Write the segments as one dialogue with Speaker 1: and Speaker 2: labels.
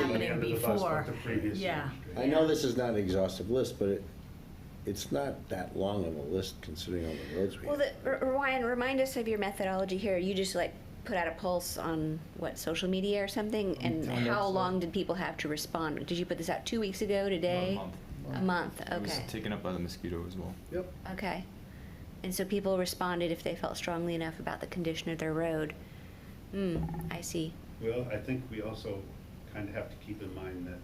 Speaker 1: it
Speaker 2: under the bus
Speaker 1: before.
Speaker 2: with the previous
Speaker 1: Yeah.
Speaker 2: administration.
Speaker 3: I know this is not an exhaustive list, but it, it's not that long of a list considering all the roads we
Speaker 4: Well,
Speaker 3: have.
Speaker 4: the, R- Ryan, remind us of your methodology here. You just like put out a pulse on what social media or something, and
Speaker 5: on
Speaker 4: how
Speaker 5: website.
Speaker 4: long did people have to respond? Did you put this out two weeks ago today?
Speaker 5: month.
Speaker 4: A month.
Speaker 5: It was
Speaker 4: Okay.
Speaker 5: taken up by the mosquito as well.
Speaker 3: Yep.
Speaker 4: okay. And so people responded if they felt strongly enough about the condition of their road. Hmm. I see.
Speaker 2: Well, I think we also kind of have to keep in mind that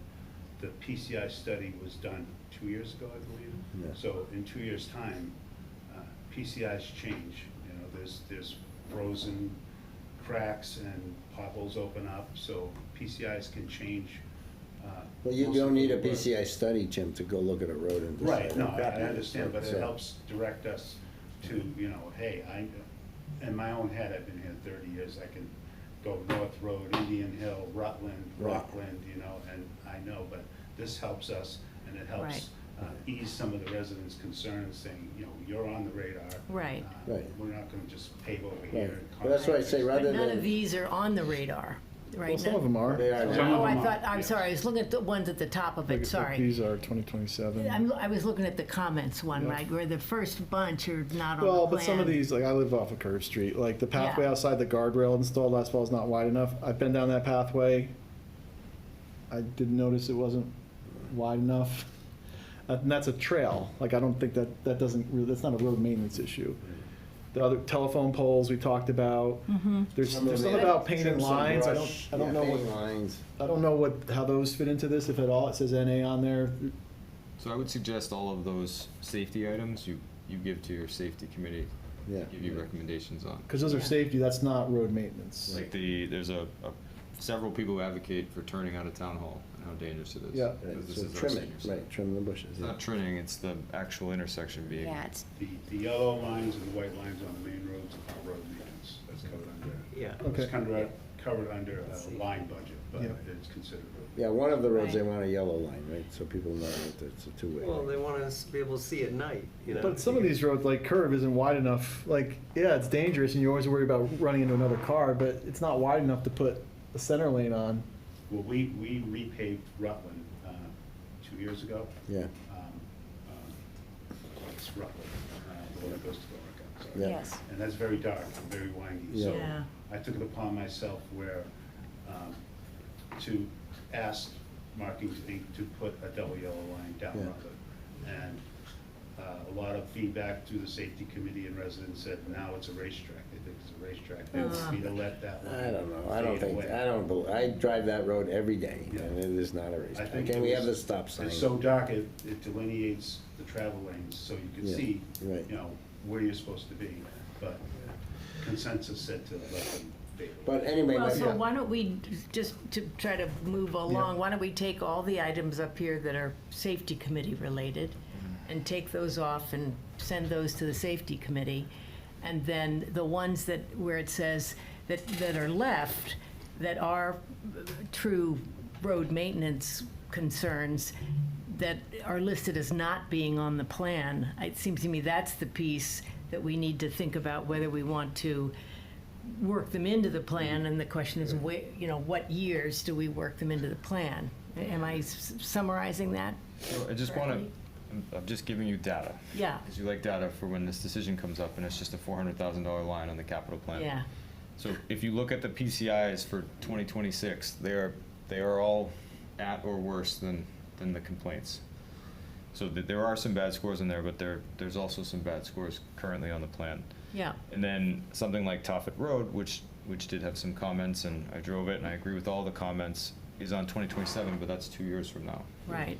Speaker 2: the PCI study was done two years ago, I
Speaker 3: Yeah.
Speaker 2: believe. So in two years' time, uh, PCIs change, you know, there's, there's frozen cracks and potholes open up, so PCIs can change. uh,
Speaker 3: Well, you
Speaker 2: most of
Speaker 3: don't need a
Speaker 2: the work.
Speaker 3: PCI study, Jim, to go look at a road and decide.
Speaker 2: Right, no, I I
Speaker 3: okay,
Speaker 2: understand, but
Speaker 3: so-
Speaker 2: it helps direct us to, you know, hey, I, in my own head, I've been here thirty years, I can go North Road, Indian Hill, Rutland,
Speaker 3: Right.
Speaker 2: Rockland, you know, and I know, but this helps us, and it
Speaker 1: Right.
Speaker 2: helps uh, ease some of the residents' concerns, saying, you know, you're on the radar.
Speaker 1: Right.
Speaker 2: uh,
Speaker 3: Right.
Speaker 2: We're not gonna just pave over here.
Speaker 3: Right.
Speaker 2: and
Speaker 3: Well, that's why I
Speaker 2: concentrate."
Speaker 3: say rather
Speaker 1: But none of
Speaker 3: than,
Speaker 1: these are on the radar, right?
Speaker 6: Well, some of them are.
Speaker 3: they are
Speaker 2: Some
Speaker 3: now.
Speaker 2: of
Speaker 1: Oh, I
Speaker 2: them are,
Speaker 1: thought, I'm
Speaker 2: yes.
Speaker 1: sorry, I was looking at the ones at the top of
Speaker 6: Look
Speaker 1: it,
Speaker 6: at-
Speaker 1: sorry.
Speaker 6: These are 2027.
Speaker 1: I'm, I was looking at the comments one,
Speaker 6: Yeah.
Speaker 1: right, where the first bunch are not on the plan.
Speaker 6: Well, but some of these, like I live off of curve street, like the pathway
Speaker 1: Yeah.
Speaker 6: outside the guardrail installed last fall is not wide enough. I've been down that pathway. I didn't notice it wasn't wide enough. Uh, And that's a trail. Like I don't think that that doesn't really, that's not a road maintenance issue. The other telephone poles we talked about.
Speaker 1: Mm-hmm.
Speaker 6: There's
Speaker 3: Some of
Speaker 6: there's
Speaker 3: them
Speaker 6: something about
Speaker 3: trim
Speaker 6: painted
Speaker 3: some
Speaker 6: lines. I don't
Speaker 3: brush,
Speaker 6: I don't
Speaker 3: yeah,
Speaker 6: know
Speaker 3: paint
Speaker 6: what
Speaker 3: Lines.
Speaker 6: I don't know what how those fit into this if at all. It says NA on there.
Speaker 5: So I would suggest all of those safety items you, you give to your safety committee.
Speaker 3: Yeah.
Speaker 5: to Give you recommendations on.
Speaker 6: Because those are
Speaker 1: Yeah.
Speaker 6: safety, that's not road maintenance.
Speaker 5: Like the, there's a, a- several people who advocate for turning out of town hall and how dangerous it is.
Speaker 6: Yeah.
Speaker 3: Right,
Speaker 5: Because this
Speaker 3: So
Speaker 5: is our
Speaker 3: trim it,
Speaker 5: senior center.
Speaker 3: right, trim the bushes.
Speaker 5: It's
Speaker 3: yeah.
Speaker 5: not trimming, it's the actual intersection being.
Speaker 4: Yeah. It's
Speaker 2: The, the yellow lines and the white lines on the main roads are road maintenance, that's covered under.
Speaker 7: Yeah.
Speaker 2: It's
Speaker 6: Okay.
Speaker 2: kind of covered under a line budget, but
Speaker 6: Yeah.
Speaker 2: it's considered road
Speaker 3: Yeah, one of the roads, they
Speaker 1: Right.
Speaker 3: want a yellow line, right, so people know that it's a two-way.
Speaker 7: Well,
Speaker 3: right?
Speaker 7: they want us to be able to see at night, you know.
Speaker 6: But some of these roads, like curve, isn't wide enough. Like, yeah, it's dangerous, and you're always worried about running into another car, but it's not wide enough to put a center lane on.
Speaker 2: Well, we, we repaved Rutland, uh, two years ago.
Speaker 3: Yeah,
Speaker 2: Um, um, It's Rutland, uh, the one that goes to Borica, I'm sorry.
Speaker 3: Yeah.
Speaker 4: yes.
Speaker 2: And that's very dark, and very windy, so
Speaker 1: Yeah.
Speaker 2: I took it upon myself where, um, to ask Markings Inc. to put a double yellow line down
Speaker 3: Yeah.
Speaker 2: Rutland. And, uh, a lot of feedback through the safety committee and residents said, now it's a racetrack, they think it's a racetrack, they
Speaker 1: Uh.
Speaker 2: need to let that line
Speaker 3: I don't know, I don't
Speaker 2: fade
Speaker 3: think,
Speaker 2: away.
Speaker 3: I don't, bel- I drive that road every day,
Speaker 2: Yeah.
Speaker 3: and it is not a race.
Speaker 2: I think
Speaker 3: Can
Speaker 2: it
Speaker 3: we
Speaker 2: was-
Speaker 3: have the stop sign?
Speaker 2: It's so dark, it, it delineates the travel lanes, so you can
Speaker 3: Yeah,
Speaker 2: see, you
Speaker 3: right.
Speaker 2: know, where you're supposed to be, but consensus said to let them be.
Speaker 3: But anyway,
Speaker 1: Well,
Speaker 3: my-
Speaker 1: so why don't we, just to try to move along, why don't we take all the items up here that are safety committee related and take those off and send those to the safety committee? And then the ones that, where it says that, that are left, that are uh, true road maintenance concerns that are listed as not being on the plan, it seems to me that's the piece that we need to think about whether we want to work them into the plan, and the question is, wh- you know, what years do we work them into the plan? Am I s- summarizing that?
Speaker 5: So I just want to, I'm just giving you data.
Speaker 1: Yeah,
Speaker 5: Because you like data for when this decision comes up and it's just a four hundred thousand dollar line on the capital plan.
Speaker 1: yeah,
Speaker 5: So if you look at the PCIs for 2026, they are, they are all at or worse than, than the complaints. So th- there are some bad scores in there, but there, there's also some bad scores currently on the plan.
Speaker 1: yeah,
Speaker 5: And then something like Tophet Road, which, which did have some comments, and I drove it, and I agree with all the comments, is on 2027, but that's two years from now.
Speaker 1: right,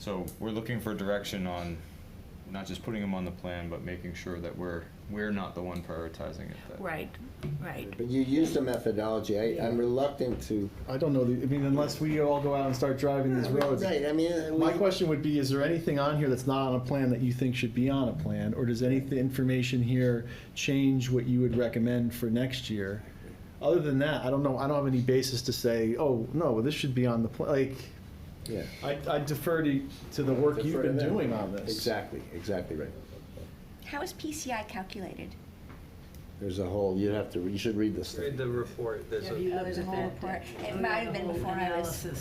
Speaker 5: So we're looking for direction on not just putting them on the plan, but making sure that we're, we're not the one prioritizing it. that-
Speaker 1: right, right.
Speaker 3: but you used a methodology, I, I'm reluctant to.
Speaker 6: I don't know. The, I mean, unless we all go out and start driving these roads.
Speaker 3: Right, I mean. uh,
Speaker 6: My
Speaker 3: we-
Speaker 6: question would be: Is there anything on here that's not on a plan that you think should be on a plan, or does any of the information here change what you would recommend for next year? Other than that, I don't know. I don't have any basis to say, oh no, this should be on the plan. Like,
Speaker 3: Yeah.
Speaker 6: I, I defer to, to the work you've
Speaker 3: Defer to
Speaker 6: been
Speaker 3: them.
Speaker 6: doing on this.
Speaker 3: Exactly, exactly right.
Speaker 4: How is PCI calculated?
Speaker 3: There's a whole, you have to, you should read this thing.
Speaker 7: Read the report, there's a.
Speaker 4: Oh, there's a whole report. It might have been before I was
Speaker 1: Analysis.